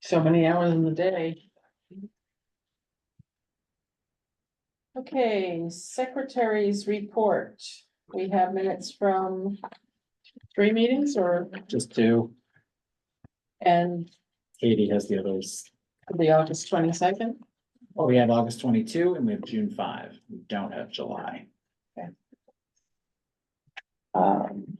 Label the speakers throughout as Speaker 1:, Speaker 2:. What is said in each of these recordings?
Speaker 1: so many hours in the day. Okay, secretary's report. We have minutes from three meetings or,
Speaker 2: Just two.
Speaker 1: and
Speaker 2: Katie has the others.
Speaker 1: the August twenty-second.
Speaker 2: Well, we have August twenty-two and we have June five. We don't have July.
Speaker 1: Um.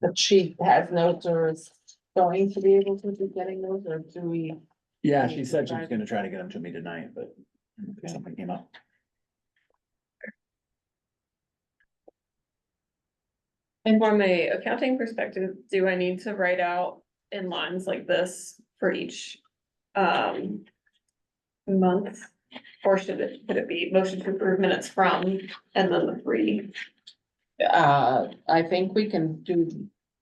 Speaker 1: The chief has notes or is going to be able to be getting those, or do we?
Speaker 2: Yeah, she said she was gonna try to get them to me tonight, but something came up.
Speaker 3: And from a accounting perspective, do I need to write out in lines like this for each um. Month, or should it, could it be motion to approve minutes from and then the three?
Speaker 1: Uh, I think we can do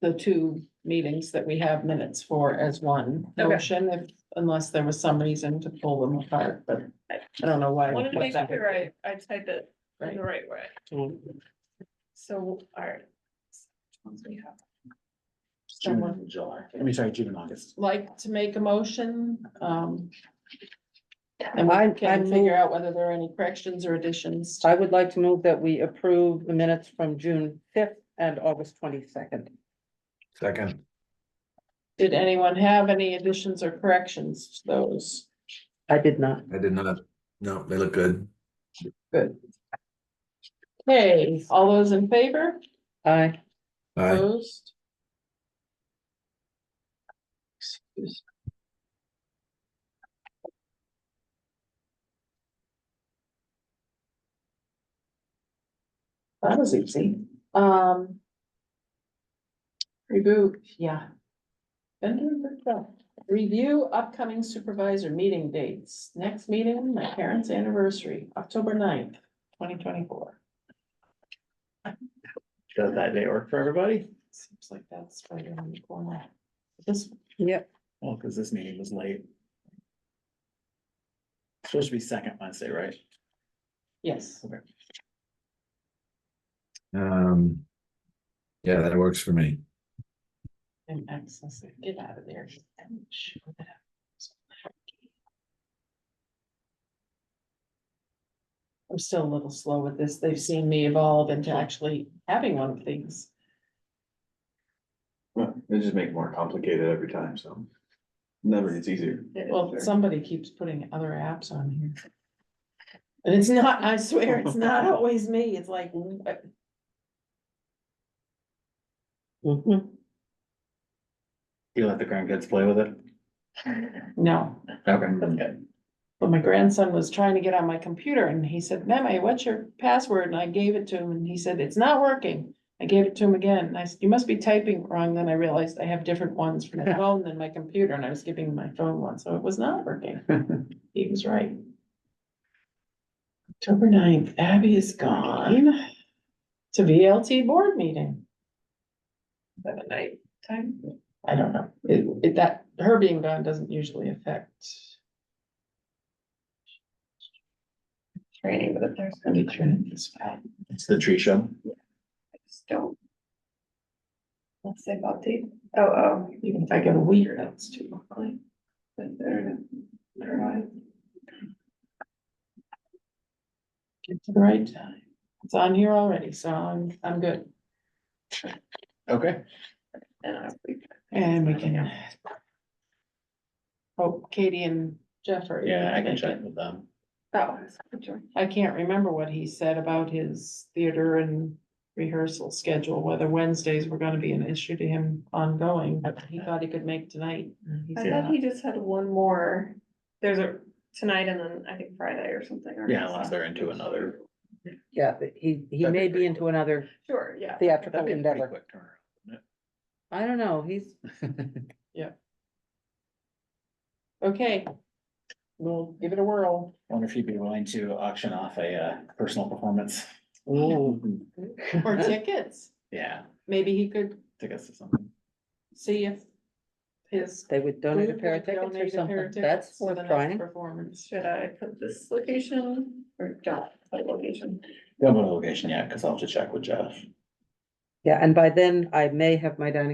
Speaker 1: the two meetings that we have minutes for as one
Speaker 3: Okay.
Speaker 1: motion, if, unless there was some reason to pull them apart, but I don't know why.
Speaker 3: I wanted to
Speaker 1: what
Speaker 3: make
Speaker 1: that would
Speaker 3: sure I
Speaker 1: be.
Speaker 3: I type it in the right way, so, alright. Ones we have.
Speaker 2: June
Speaker 1: Someone
Speaker 2: and July. I mean, sorry, June and August.
Speaker 1: like to make a motion, um. And
Speaker 4: I-
Speaker 1: we
Speaker 4: I
Speaker 1: can
Speaker 4: move-
Speaker 1: figure out whether there are any corrections or additions. to-
Speaker 4: I would like to move that we approve the minutes from June fifth and August twenty-second.
Speaker 5: Second,
Speaker 1: Did anyone have any additions or corrections to those?
Speaker 4: I did not.
Speaker 5: I did not, no, they look good.
Speaker 1: Okay, all those in favor?
Speaker 4: I,
Speaker 5: Aye.
Speaker 1: Opposed? Excuse. That was easy. Um. Reboot, yeah. And review upcoming supervisor meeting dates. Next meeting, my parents' anniversary, October 9th, twenty twenty-four.
Speaker 2: Does that day work for everybody?
Speaker 1: Seems like that's right around the corner. This,
Speaker 4: yep,
Speaker 2: Well, because this meeting was late. Supposed to be second Wednesday, right?
Speaker 1: yes,
Speaker 5: Um. Yeah, that works for me.
Speaker 1: and access it, get out of there. I'm still a little slow with this. They've seen me evolve into actually having one of these.
Speaker 6: Well, they just make it more complicated every time, so. Never gets easier.
Speaker 1: Well, somebody keeps putting other apps on here. And it's not, I swear, it's not always me. It's like, what?
Speaker 4: Mm-hmm.
Speaker 2: You let the grandkids play with it?
Speaker 1: no.
Speaker 2: Okay.
Speaker 1: But my grandson was trying to get on my computer and he said, Meme, what's your password? And I gave it to him and he said, it's not working. I gave it to him again. And I said, you must be typing wrong. Then I realized I have different ones for my phone than my computer and I was giving him my phone one, so it was not working. He was right. October 9th, Abby is gone. To VLT board meeting.
Speaker 3: By the night time,
Speaker 1: I don't know. It, it, that, her being gone doesn't usually affect
Speaker 3: training, but if there's.
Speaker 1: any training. It's fine.
Speaker 2: It's the tree show.
Speaker 3: I just don't. Let's say update, oh, oh,
Speaker 1: Even if I get a week, that's too quick.
Speaker 3: but there, there are.
Speaker 1: Get to the right time. It's on here already, so I'm, I'm good.
Speaker 2: Okay.
Speaker 3: And I, we-
Speaker 1: And we can. Oh, Katie and Jeff are.
Speaker 2: Yeah, I can check with them.
Speaker 3: oh, sorry,
Speaker 1: I can't remember what he said about his theater and rehearsal schedule, whether Wednesdays were gonna be an issue to him ongoing, but he thought he could make tonight.
Speaker 2: Mm-hmm.
Speaker 1: and he
Speaker 3: I
Speaker 1: said-
Speaker 3: thought he just had one more, there's a, tonight and then I think Friday or something. or-
Speaker 2: Yeah, unless they're into another.
Speaker 4: yeah, but he, he
Speaker 2: That'd be
Speaker 4: may be
Speaker 2: pretty
Speaker 4: into another
Speaker 3: Sure, yeah.
Speaker 4: theatrical
Speaker 2: That'd be a pretty
Speaker 4: endeavor.
Speaker 2: quick turnaround,
Speaker 4: I don't know, he's,
Speaker 2: wouldn't it?
Speaker 1: Okay. We'll give it a whirl.
Speaker 2: Wonder if you'd be willing to auction off a uh, personal performance? Ooh.
Speaker 1: Or tickets.
Speaker 2: Yeah,
Speaker 1: Maybe he could
Speaker 2: tickets to something.
Speaker 1: see if his
Speaker 4: they would donate a
Speaker 1: Food
Speaker 4: pair of
Speaker 1: would
Speaker 4: tickets or
Speaker 1: donate a pair
Speaker 4: something.
Speaker 1: of tickets to
Speaker 4: That's
Speaker 1: the
Speaker 4: worth
Speaker 1: next
Speaker 4: trying.
Speaker 1: Performance.
Speaker 3: Should I put this location or don't put location?
Speaker 2: Don't go to location yet, because I'll have to check with Jeff.
Speaker 4: Yeah, and by then I may have my dining